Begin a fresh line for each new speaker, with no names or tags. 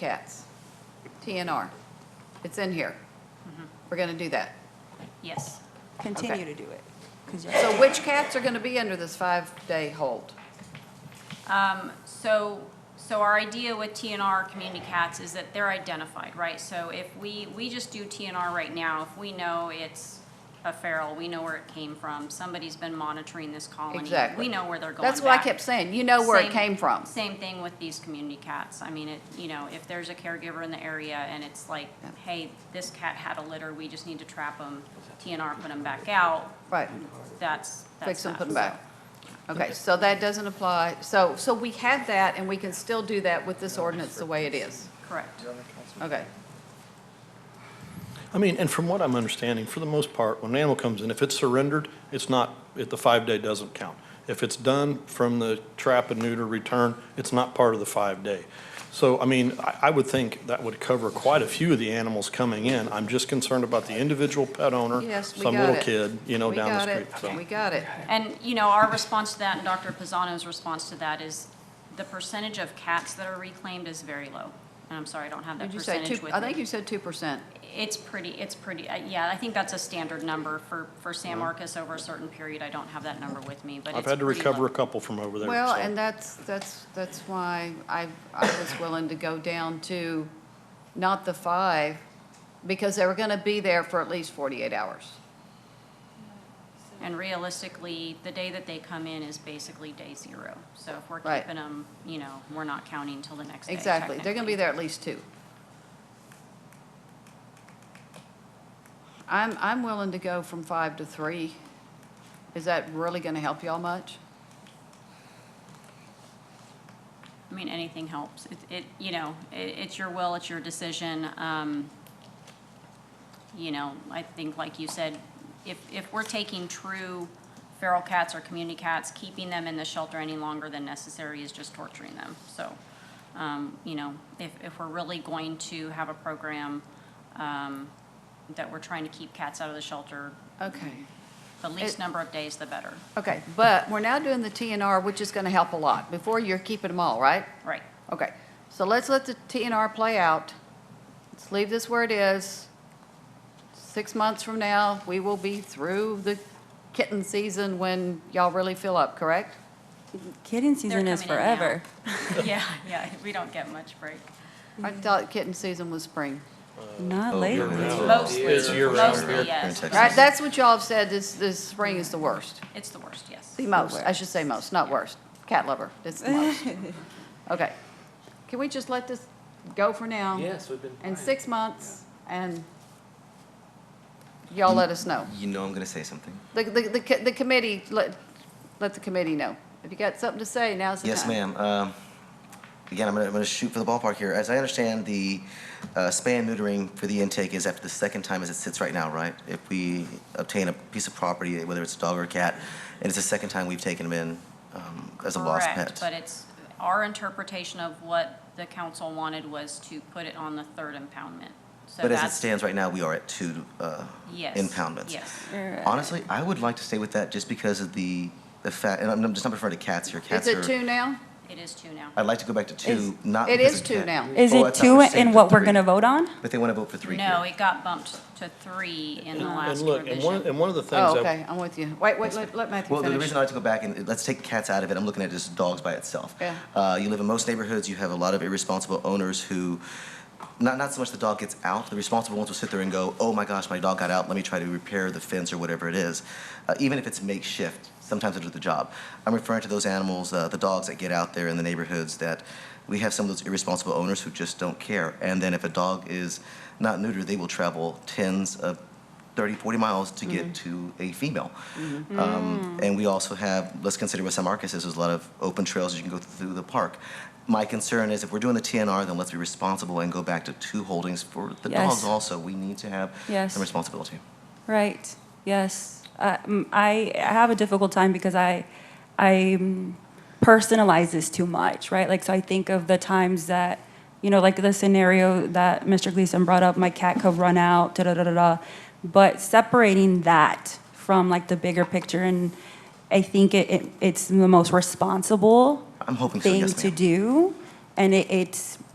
cats, TNR. It's in here. We're going to do that.
Yes.
Continue to
continue to do it.
So which cats are going to be under this five-day hold?
Um, So, so our idea with TNR community cats is that they're identified, right? So if we, we just do TNR right now, if we know it's a feral, we know where it came from, somebody's been monitoring this colony.
Exactly.
We know where they're going
That's what I
back.
kept saying. You know where it
Same-
came from.
Same thing with these community cats. I mean, it, you know, if there's a caregiver in the area and it's like,
Yeah.
hey, this cat had a litter, we just need to trap them, TNR put them back out,
Right.
that's, that's
Fix them,
that.
put them back. Okay, so that doesn't apply. So, so we have that and we can still do that with this ordinance the way it is.
Correct.
Okay.
I mean, and from what I'm understanding, for the most part, when an animal comes in, if it's surrendered, it's not, it- the five-day doesn't count. If it's done from the trap and neuter return, it's not part of the five-day. So, I mean, I, I would think that would cover quite a few of the animals coming in. I'm just concerned about the individual pet owner,
Yes, we got
some
it.
little kid, you know,
We
down the
got
street.
it.
so.
We got it.
And, you know, our response to that, and Dr. Pisano's response to that is the percentage of cats that are reclaimed is very low. And I'm sorry, I don't have that
Did you say
percentage
two,
with
I think
me.
you said 2%.
It's pretty, it's pretty, uh, yeah, I think that's a standard number for, for San Marcos over a certain period. I don't have that number with me, but it's
I've had to
pretty
recover
low.
a couple from over there.
Well,
so.
and that's, that's, that's why I, I was willing to go down to not the five, because they were gonna be there for at least forty-eight hours.
And realistically, the day that they come in is basically day zero. So if we're
Right.
keeping them, you know, we're not counting till the next day
Exactly, they're gonna be
technically.
there at least two. I'm, I'm willing to go from five to three. Is that really gonna help y'all much?
I mean, anything helps. It, it, you know, it, it's your will, it's your decision. Um, you know, I think, like you said, if, if we're taking true feral cats or community cats, keeping them in the shelter any longer than necessary is just torturing them. So, um, you know, if, if we're really going to have a program, um, that we're trying to keep cats out of the shelter,
Okay.
the least
It-
number of days, the better.
Okay, but we're now doing the TNR, which is gonna help a lot. Before, you're keeping them all, right?
Right.
Okay, so let's let the TNR play out. Let's leave this where it is. Six months from now, we will be through the kitten season when y'all really fill up, correct?
Kitten
They're
season is
coming in now.
forever.
Yeah, yeah, we don't get much break.
I thought kitten season was spring.
Oh,
Not later.
Mostly,
It's year-round.
mostly, yes.
Right, that's what y'all have said, this, this spring is the worst.
It's the worst, yes.
The most, I should say most, not worst. Cat lover, it's the most. Okay. Can we just let this go for now?
Yes, we've been.
And
trying.
six months, and y'all let us know.
You know I'm going to say something.
The, the, the co- the committee, let, let the committee know. If you got something to say, now's the time.
Yes, ma'am. Um, Again, I'm going to shoot for the ballpark here. As I understand, the uh, spay and neutering for the intake is after the second time as it sits right now, right? If we obtain a piece of property, whether it's a dog or a cat, and it's the second time we've taken them in um, as a lost
Correct, but
pet.
it's, our interpretation of what the council wanted was to put it on the third impoundment. So
But as it
that's-
stands right now, we are at two uh,
Yes,
impoundments.
Yes,
Honestly, I would like to stay with that just because of the, the fact, and I'm just not referring to cats here.
Is
Cats
it
are,
two now?
it is two now.
I'd like to go back to two, not
It
because
is
of
two
cat.
now.
Is
Oh,
it
that's not
two
the same,
in what
but
we're
three.
going to vote on?
But they want to vote for three
No,
here.
it got bumped to three in the last
And look, and one,
revision.
and one of the things.
Oh,
I-
okay, I'm with you. Wait, wait, let, let Matthew
Well, the
finish.
reason I like to go back and let's take cats out of it. I'm looking at just dogs by itself.
Yeah.
Uh, you live in most neighborhoods. You have a lot of irresponsible owners who, not not so much the dog gets out. The responsible ones will sit there and go, "Oh my gosh, my dog got out. Let me try to repair the fence or whatever it is," uh, even if it's makeshift. Sometimes it'll do the job. I'm referring to those animals, uh, the dogs that get out there in the neighborhoods that we have some of those irresponsible owners who just don't care. And then if a dog is not neutered, they will travel tens of 30, 40 miles to get
Mm-hmm.
to a female. Um,
Mm.
and we also have, let's consider with San Marcos, is there's a lot of open trails you can go through the park. My concern is if we're doing the TNR, then let's be responsible and go back to two holdings for the
Yes.
dogs also. We need to have
Yes.
some responsibility.
Right, yes. Uh, mm, I I have a difficult time because I, I mm, personalize this too much, right? Like, so I think of the times that, you know, like the scenario that Mr. Gleason brought up, my cat could run out, da-da-da-da-da. But separating that from like the bigger picture, and I think it, it- it's the most responsible
I'm hoping so,
thing
yes,
to
ma'am.
do. And it, it's,